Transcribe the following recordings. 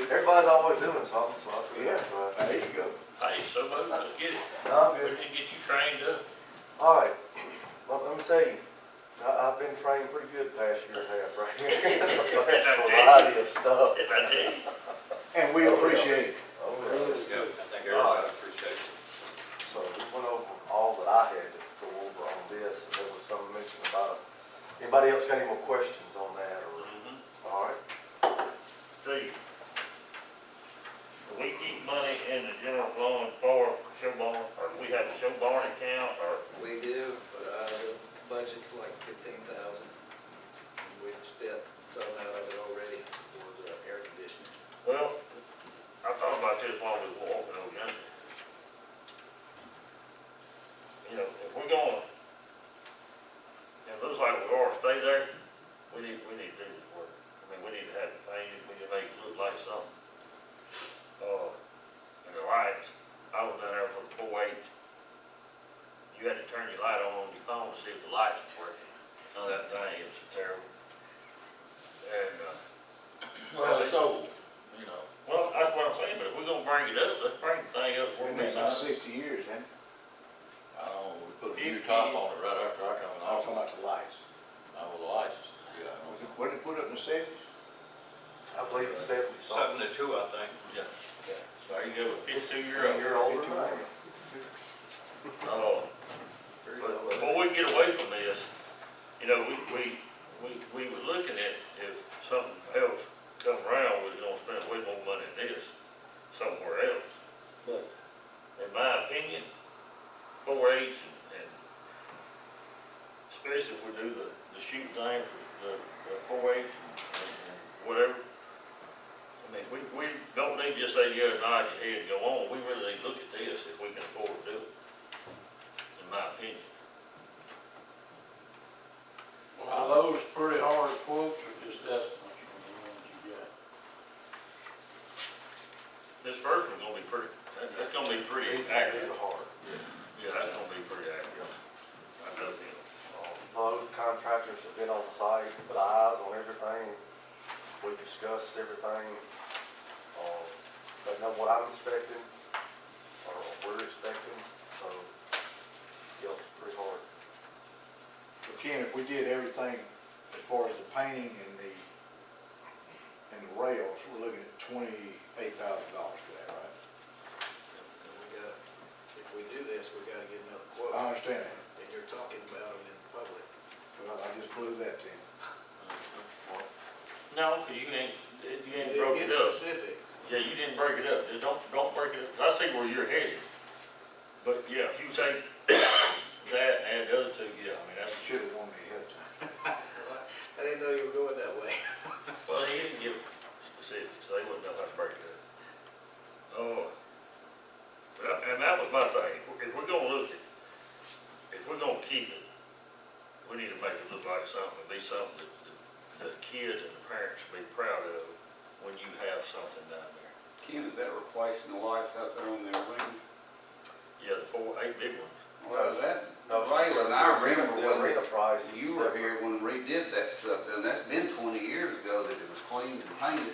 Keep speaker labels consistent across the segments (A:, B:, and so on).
A: Everybody's always doing something, so I figured, uh,
B: There you go.
C: Hey, so moved, let's get it.
A: no, I'm
C: We
A: good.
C: can get you trained up.
A: All right, well, let me tell you, I, I've been trained pretty good the past year and a half right here. That's a lot of stuff.
C: If I tell you,
B: And we appreciate it.
A: Oh, yeah.
D: Yeah, I think everybody appreciates it.
A: So we went over all that I had to go over on this, and there was some mention about, it. anybody else got any more questions on that, or,
E: Mm-hmm.
C: Mhm.
A: all right?
E: Steve, do we keep money in the general fund for show barn, or we have a show barn account, or
F: We do, but uh, the budget's like fifteen thousand. We've spent some out of it already for the air conditioning.
E: Well, I thought about this while we were walking over yonder. You know, if we're gonna, it looks like we're gonna stay there, we need, we need to do this work. I mean, we need to have it painted, we need to make it look like something. Uh, and the lights, I was down there for the four eight. You had to turn your light on on your phone to see if the lights were working. Now that thing is terrible. And, uh,
D: Well, it's old, you know.
E: well, that's what I'm saying, but if we're gonna bring it up, let's bring the thing up, we're
B: Been
E: gonna
B: there about
E: sign.
B: sixty years, and
D: I don't know, we put a new top on it right after I come in
B: I was
D: office.
B: talking about the lights.
D: Now with the lights, yeah, I
B: Was
D: know.
B: it, what did it put up in the seventies?
A: I believe it's seventy something.
D: Seven to two, I think.
E: So I can go with fifty-two year old.
A: You're older than I am.
E: Uh, but before we get away from this, you know, we, we, we, we was looking at if something else come around, we was gonna spend way more money than this somewhere else.
F: But
E: In my opinion, four H and, and especially if we do the, the shoot thing for the, the four H and and whatever. I mean, we, we don't need just say, yeah, nod your head and go on, we really need to look at this if we can afford to do it, in my opinion.
G: Are those pretty hard quotes or just estimates from the ones you got?
E: This first one's gonna be pretty, that- that's gonna be pretty
A: These these
E: accurate,
A: are hard.
E: yeah, that's gonna be pretty accurate. I know that.
A: Both contractors have been on site, put eyes on everything. We discussed everything. Uh, They know what I'm expecting, or what we're expecting, so, yeah, it's pretty hard.
B: But Ken, if we did everything as far as the painting and the, and the rails, we're looking at twenty-eight thousand dollars for that, right?
F: and we got, if we do this, we gotta get another
B: I
F: quote,
B: understand that,
F: and you're talking about them in public.
B: but I, I just blew that to him.
E: No, cause you ain't, you
F: You
E: ain't
F: didn't
E: broke
F: get
E: it up.
F: Specifics.
E: Yeah, you didn't break it up, Just don't, don't break it up, 'Cause I see where you're headed. But yeah, if you take that and add the other two, yeah, I mean, that's,
B: Should've warned me ahead of time.
F: I didn't know you were going that way.
E: well, he didn't give specifics, so they wouldn't know how to break it up. Oh, but I- and that was my thing, If we're- if we're gonna look at, if we're gonna keep it, we need to make it look like something, be something that, that the kids and the parents be proud of when you have something down there.
H: Ken, is that replacing the lights out there on their wing?
E: Yeah, the four, eight big ones.
H: Well, that,
A: No, it's-
H: Raylan, I
A: The
H: remember
A: arena
H: when
A: price is
H: you were
A: separate.
H: here when we redid that stuff, and that's been twenty years ago that it was cleaned and painted,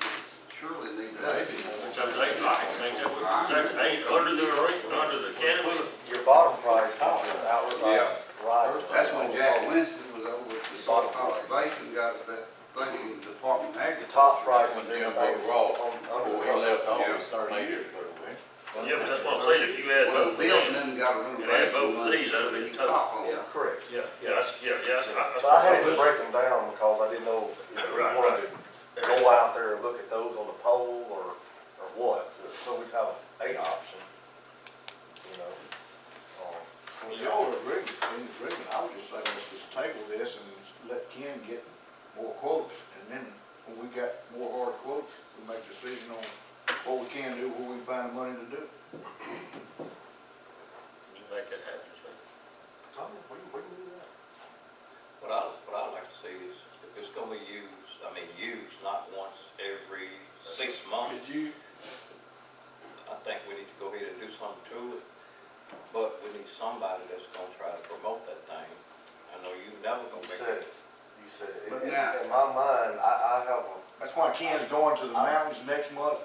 H: surely needs that.
D: Maybe more.
E: Times eight lights, ain't that what, is that eight under the, ring- under the canopy?
A: Your bottom price is the outright,
H: Oh. Yeah.
A: right.
H: That's when Jack Winston was over with the Salt Conservation, got us that thing in the Department of
A: The
H: Agriculture.
A: top price is
D: When
A: everything
D: Jim Boyd Ross,
A: on- under the
D: Before he left
H: Yeah.
D: office, thirty years ago, man.
E: Yeah, but that's what I'm saying, if you add
H: Well,
E: both of
H: the building
E: them.
H: then got a
E: You
H: little.
E: add both of these, that'd be total.
H: Top on it.
A: cover. Correct.
E: Yeah, yeah, that's, yeah, yeah, that's, I- that's.
A: But I had to break them down because I didn't know if we
E: Right,
A: wanted to go out there and look at those on the pole or, or what, so, so we have a option, you know. um,
B: Well, y'all are agreeing, in agreement, I would just say, let's just table this and let Ken get more quotes, and then when we got more hard quotes, we make a decision on what we can do, what we find money to do.
E: You make that happen, so.
A: Tom, what do you- what do you do that?
I: What I, what I'd like to see is, if it's gonna be used, I mean, used, not once every six months,
G: Could you,
I: I think we need to go ahead and do something to it. But we need somebody that's gonna try to promote that thing. I know you never gonna
A: You
I: make
A: said
I: it.
A: it, you said it.
H: But
A: In- in-
H: now-
A: In my mind, I, I have a
B: That's why Ken's going to the mountains next month